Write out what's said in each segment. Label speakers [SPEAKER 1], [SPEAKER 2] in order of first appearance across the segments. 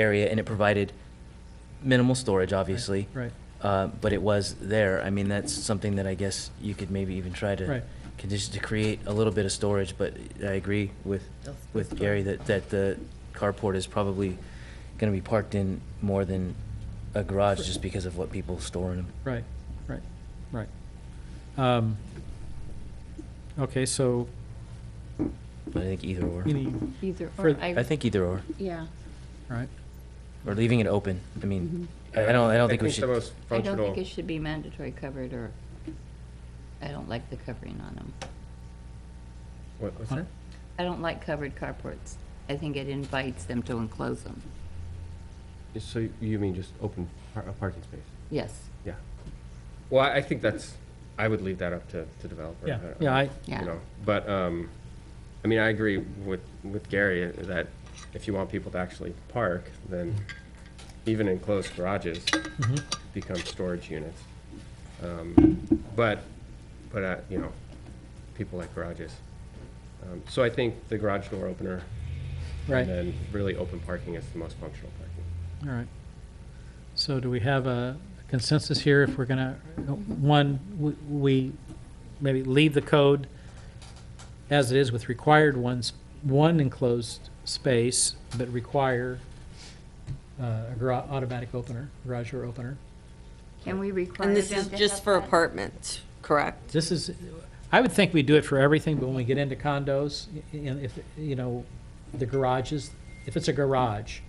[SPEAKER 1] area, and it provided minimal storage, obviously.
[SPEAKER 2] Right,
[SPEAKER 1] Uh, But it was there. I mean, that's something that I guess you could maybe even try to
[SPEAKER 2] Right.
[SPEAKER 1] condition to create a little bit of storage, but I agree with, with Gary that, that the carport is probably gonna be parked in more than a garage just because of what people store in them.
[SPEAKER 2] right, right, right. Um, Okay, so
[SPEAKER 1] But I think either or.
[SPEAKER 2] any,
[SPEAKER 3] Either,
[SPEAKER 2] For-
[SPEAKER 3] or,
[SPEAKER 1] I
[SPEAKER 3] I,
[SPEAKER 1] think either or,
[SPEAKER 3] yeah.
[SPEAKER 2] right,
[SPEAKER 1] or leaving it open. I mean,
[SPEAKER 2] Mm-hmm.
[SPEAKER 1] I I don't, I don't think we
[SPEAKER 4] the
[SPEAKER 1] should,
[SPEAKER 4] most
[SPEAKER 3] I don't think
[SPEAKER 4] functional,
[SPEAKER 3] it should be mandatory covered, or, I don't like the covering on them.
[SPEAKER 4] what was
[SPEAKER 2] Huh?
[SPEAKER 4] that?
[SPEAKER 3] I don't like covered carports. I think it invites them to enclose them.
[SPEAKER 4] So you mean just open par- a parking space?
[SPEAKER 3] Yes,
[SPEAKER 4] Yeah. Well, I I think that's, I would leave that up to, to developer.
[SPEAKER 2] yeah,
[SPEAKER 4] don't-
[SPEAKER 2] yeah, I,
[SPEAKER 3] yeah.
[SPEAKER 4] You know, but, um, I mean, I agree with, with Gary uh, that if you want people to actually park, then even enclosed garages
[SPEAKER 1] Mm-hmm.
[SPEAKER 4] become storage units. Um, But, but, uh, you know, people like garages. Um, So I think the garage door opener
[SPEAKER 2] right,
[SPEAKER 4] and then really open parking is the most functional parking.
[SPEAKER 2] all right. So do we have a consensus here if we're gonna, one, we- we maybe leave the code as it is with required ones, one enclosed space, but require uh, a garage, automatic opener, garage door opener?
[SPEAKER 3] Can we require
[SPEAKER 5] And
[SPEAKER 3] them
[SPEAKER 5] this is
[SPEAKER 3] to
[SPEAKER 5] just
[SPEAKER 3] have
[SPEAKER 5] for
[SPEAKER 3] that?
[SPEAKER 5] apartments, correct?
[SPEAKER 2] This is, I would think we do it for everything, but when we get into condos, i- and if, you know, the garages, if it's a garage,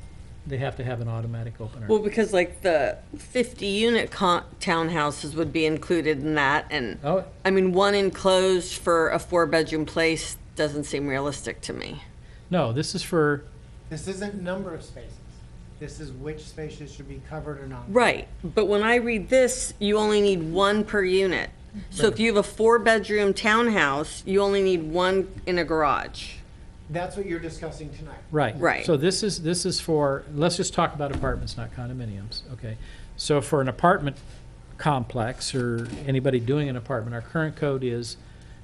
[SPEAKER 2] they have to have an automatic opener.
[SPEAKER 5] Well, because like the 50-unit con- townhouses would be included in that, and,
[SPEAKER 2] Oh,
[SPEAKER 5] I mean, one enclosed for a four-bedroom place doesn't seem realistic to me.
[SPEAKER 2] no, this is for,
[SPEAKER 6] This isn't number of spaces. This is which spaces should be covered or not.
[SPEAKER 5] Right, but when I read this, you only need one per unit. So if you have a four-bedroom townhouse, you only need one in a garage.
[SPEAKER 6] That's what you're discussing tonight.
[SPEAKER 2] right.
[SPEAKER 5] Right.
[SPEAKER 2] So this is, this is for, let's just talk about apartments, not condominiums, okay? So for an apartment complex, or anybody doing an apartment, our current code is,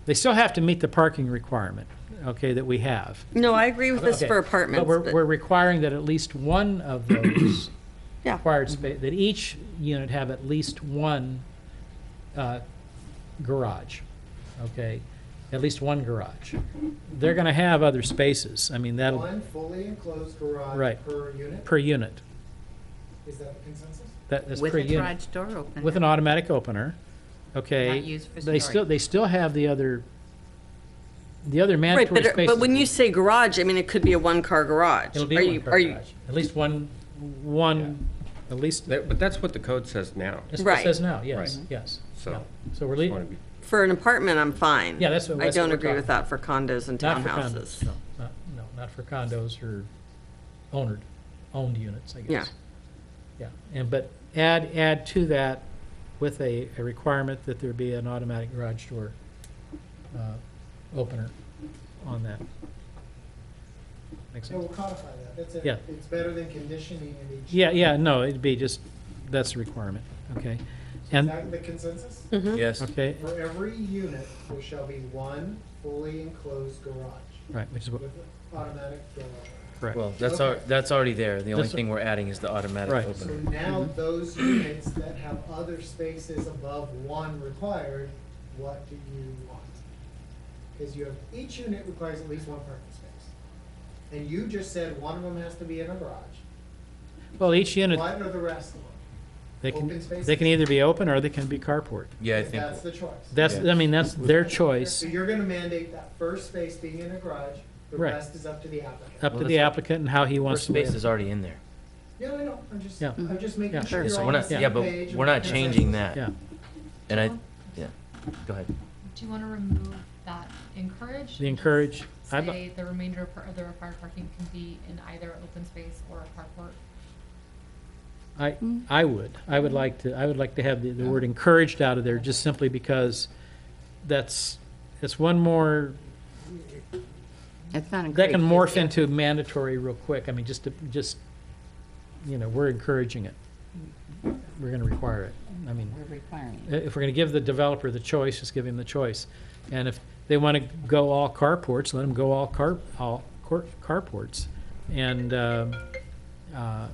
[SPEAKER 2] they still have to meet the parking requirement, okay, that we have.
[SPEAKER 5] No, I agree with this
[SPEAKER 2] Okay,
[SPEAKER 5] for apartments,
[SPEAKER 2] But we're,
[SPEAKER 5] but-
[SPEAKER 2] we're requiring that at least one of those
[SPEAKER 5] Yeah.
[SPEAKER 2] required space, that each unit have at least one uh, garage, okay? At least one garage. They're going to have other spaces, I mean, that'll,
[SPEAKER 6] One fully enclosed garage
[SPEAKER 2] Right.
[SPEAKER 6] per unit.
[SPEAKER 2] per unit,
[SPEAKER 6] Is that the consensus?
[SPEAKER 2] that, that's
[SPEAKER 3] With
[SPEAKER 2] per
[SPEAKER 3] a
[SPEAKER 2] unit.
[SPEAKER 3] garage door open.
[SPEAKER 2] With an automatic opener, okay?
[SPEAKER 3] Not used for
[SPEAKER 2] They still,
[SPEAKER 3] storage.
[SPEAKER 2] they still have the other, the other
[SPEAKER 5] Right,
[SPEAKER 2] mandatory
[SPEAKER 5] but,
[SPEAKER 2] spaces.
[SPEAKER 5] but when you say garage, I mean, it could be a one-car garage.
[SPEAKER 2] It'll be
[SPEAKER 5] Are
[SPEAKER 2] one
[SPEAKER 5] you-
[SPEAKER 2] per
[SPEAKER 5] are you-
[SPEAKER 2] garage. At least one, one, at least,
[SPEAKER 4] That- But that's what the code says now,
[SPEAKER 2] that's what it
[SPEAKER 5] Right.
[SPEAKER 2] says now, yes,
[SPEAKER 4] Right.
[SPEAKER 2] yes.
[SPEAKER 4] so.
[SPEAKER 2] So we're
[SPEAKER 4] wanna
[SPEAKER 2] leaving,
[SPEAKER 4] be-
[SPEAKER 5] For an apartment, I'm fine.
[SPEAKER 2] Yeah, that's what-
[SPEAKER 5] I
[SPEAKER 2] that's what
[SPEAKER 5] don't
[SPEAKER 2] we're
[SPEAKER 5] agree with
[SPEAKER 2] talking
[SPEAKER 5] that for condos and
[SPEAKER 2] not for condos,
[SPEAKER 5] townhouses.
[SPEAKER 2] no, not, no, not for condos or owned, owned units, I guess. Yeah, and, but add, add to that with a, a requirement that there be an automatic garage door uh, opener on that. Makes
[SPEAKER 6] So we'll
[SPEAKER 2] sense?
[SPEAKER 6] codify that. That's it.
[SPEAKER 2] Yeah.
[SPEAKER 6] It's better than conditioning in each.
[SPEAKER 2] Yeah, yeah, no, it'd be just, that's a requirement, okay?
[SPEAKER 6] Is
[SPEAKER 2] And,
[SPEAKER 6] that the consensus?
[SPEAKER 2] Mm-hmm.
[SPEAKER 1] yes.
[SPEAKER 2] okay,
[SPEAKER 6] For every unit, there shall be one fully enclosed garage
[SPEAKER 2] right, which is what,
[SPEAKER 6] with automatic door.
[SPEAKER 2] correct.
[SPEAKER 1] Well, that's, al- that's already there. The only
[SPEAKER 2] That's-
[SPEAKER 1] thing we're adding is the automatic
[SPEAKER 2] Right.
[SPEAKER 6] So
[SPEAKER 1] opener.
[SPEAKER 6] now those units that have other spaces above one required, what do you want? Because you have, each unit requires at least one parking space. And you just said one of them has to be in a garage.
[SPEAKER 2] Well, each unit,
[SPEAKER 6] What are the rest of them?
[SPEAKER 2] they can,
[SPEAKER 6] open spaces?
[SPEAKER 2] they can either be open or they can be carport.
[SPEAKER 1] Yeah, I think,
[SPEAKER 6] That's the choice.
[SPEAKER 2] That's, I mean, that's their choice,
[SPEAKER 6] So you're gonna mandate that first space being in a garage, the
[SPEAKER 2] Right.
[SPEAKER 6] rest is up to the applicant.
[SPEAKER 2] up to
[SPEAKER 1] Well,
[SPEAKER 2] the
[SPEAKER 1] that's-
[SPEAKER 2] applicant and how he
[SPEAKER 1] our
[SPEAKER 2] wants to.
[SPEAKER 1] space is already in there.
[SPEAKER 6] Yeah, I know, I'm just,
[SPEAKER 2] Yeah.
[SPEAKER 6] I'm just
[SPEAKER 2] Yeah.
[SPEAKER 6] making sure
[SPEAKER 1] Yeah,
[SPEAKER 6] you're
[SPEAKER 1] so
[SPEAKER 6] all
[SPEAKER 1] we're
[SPEAKER 6] on the
[SPEAKER 1] not,
[SPEAKER 6] same
[SPEAKER 1] yeah,
[SPEAKER 6] page.
[SPEAKER 1] but
[SPEAKER 6] and
[SPEAKER 1] we're not
[SPEAKER 6] consensus.
[SPEAKER 1] changing that.
[SPEAKER 2] Yeah,
[SPEAKER 1] And I, yeah, go ahead.
[SPEAKER 7] Do you want to remove that encourage?
[SPEAKER 2] the encourage, I'd, li-
[SPEAKER 7] Say the remainder of par- of the required parking can be in either open space or a carport?
[SPEAKER 2] I, I would, I would like to, I would like to have the, the word encouraged out of there, just simply because that's, it's one more,
[SPEAKER 3] It's
[SPEAKER 2] that can
[SPEAKER 3] not encouraged,
[SPEAKER 2] morph
[SPEAKER 3] it's-
[SPEAKER 2] into mandatory real quick, I mean, just to, just, you know, we're encouraging it. We're gonna require it, I mean,
[SPEAKER 3] We're requiring
[SPEAKER 2] i-
[SPEAKER 3] it.
[SPEAKER 2] if we're gonna give the developer the choice, just give him the choice. And if they wanna go all carports, let them go all car, all cor- carports. And, um, I- uh,